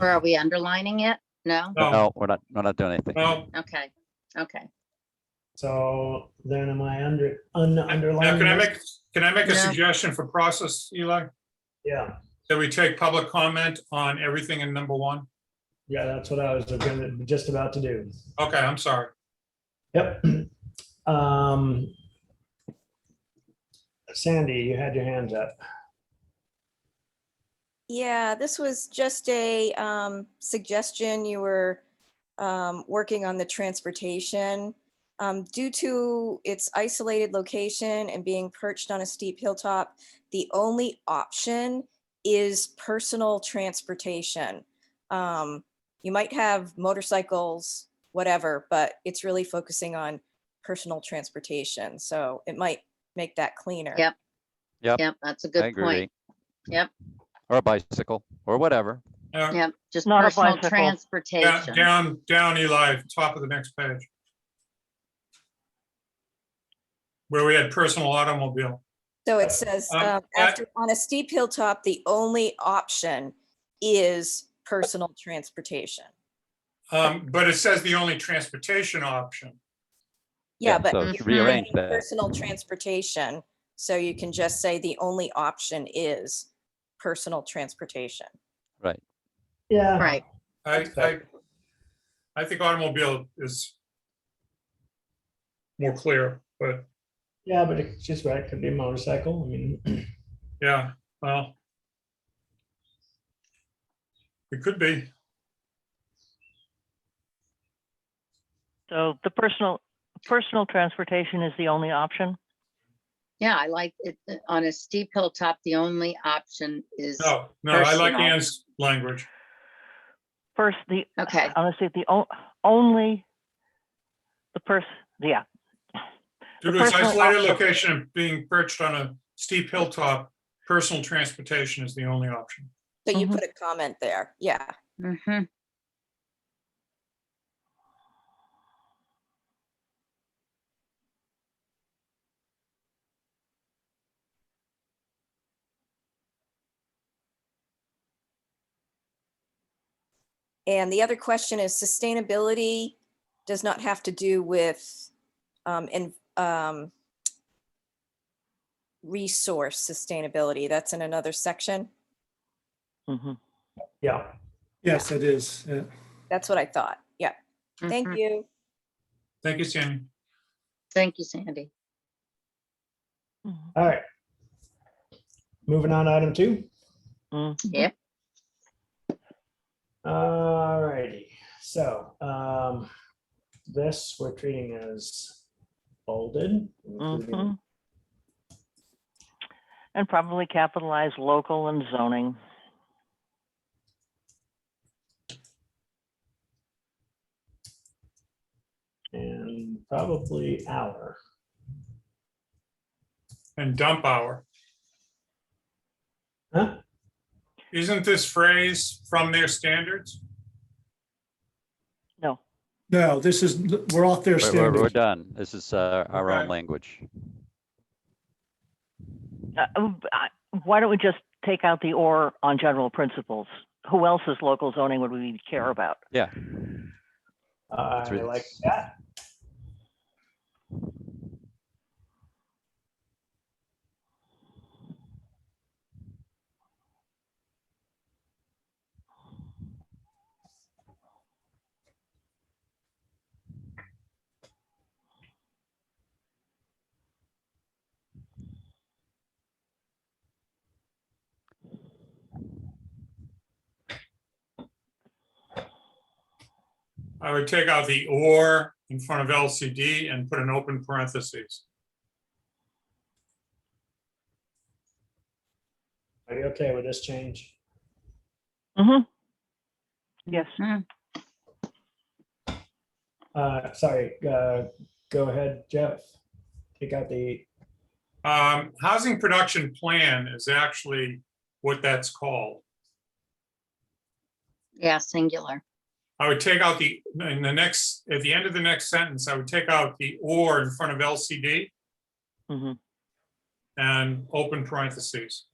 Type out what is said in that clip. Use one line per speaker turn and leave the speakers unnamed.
Or are we underlining it? No?
Oh.
No, Oh, we're not, we're not doing anything.
No,
Okay, okay.
So then am I under, un,
now
underlining?
can I
this?
make, can I make
No.
a suggestion for process, Eli?
Yeah,
That we take public comment on everything in number one?
yeah, that's what I was gonna, just about to do.
Okay, I'm sorry.
Yep. Um, Sandy, you had your hands up.
Yeah, this was just a um, suggestion. You were um, working on the transportation. Um, Due to its isolated location and being perched on a steep hilltop, the only option is personal transportation. Um, You might have motorcycles, whatever, but it's really focusing on personal transportation. So it might make that cleaner.
Yep.
Yep.
Yep, that's a
I
good
agree.
point. Yep.
Or a bicycle, or whatever.
Uh,
Yep, just
Not a
personal
bicycle.
da-
transportation.
Down, down Eli, top of the next page. Where we had personal automobile.
So it says,
Um,
um,
I-
after, on a steep hilltop, the only option is personal transportation.
Um, but it says the only transportation option.
Yeah, but
So
you
let's
Mhm.
rearrange that.
personal transportation, so you can just say the only option is personal transportation.
Yeah.
Right,
I, I, I think automobile is more clear, but
Yeah, but it's just right. It could be a motorcycle. I mean,
yeah, well. It could be.
So the personal, personal transportation is the only option?
yeah, I like it, uh, on a steep hilltop, the only option is,
No, no, I like
Personal.
Anne's language.
First, the,
okay,
honestly, the o- only, the person, yeah,
Due
The
to its
personal
isolated
option.
location and being perched on a steep hilltop, personal transportation is the only option.
So you
Mhm.
put a comment there, yeah.
hmm
And the other question is sustainability does not have to do with um, in, um, resource sustainability. That's in another section.
hmm
yeah,
Yes, it is. Yeah.
That's what I thought. Yeah.
mm-hmm.
Thank you.
Thank you, Sandy.
Thank you, Sandy.
all right. Moving on, to item two.
mm-hmm,
Yep,
All righty, so, um, this we're treating as bolded.
hmm
including-
And probably capitalize local and zoning.
And probably our,
And dump hour.
huh?
Isn't this phrase from their standards?
No,
No, this is, we're off their
We're- We're, we're
standard.
done. This is uh, our own
Okay.
language.
Uh, uh, I- why don't we just take out the or on general principles? Who else's local zoning would we care about?
Yeah.
I
really-
like that.
I would take out the or in front of LCD and put an open parentheses.
Are you okay with this change?
hmm Yes,
Uh, sorry, uh, go ahead, Jeff. Take out the,
Um, housing production plan is actually what that's called.
yeah, singular.
I would take out the, in the next, at the end of the next sentence, I would take out the or in front of LCD
hmm
and open parentheses.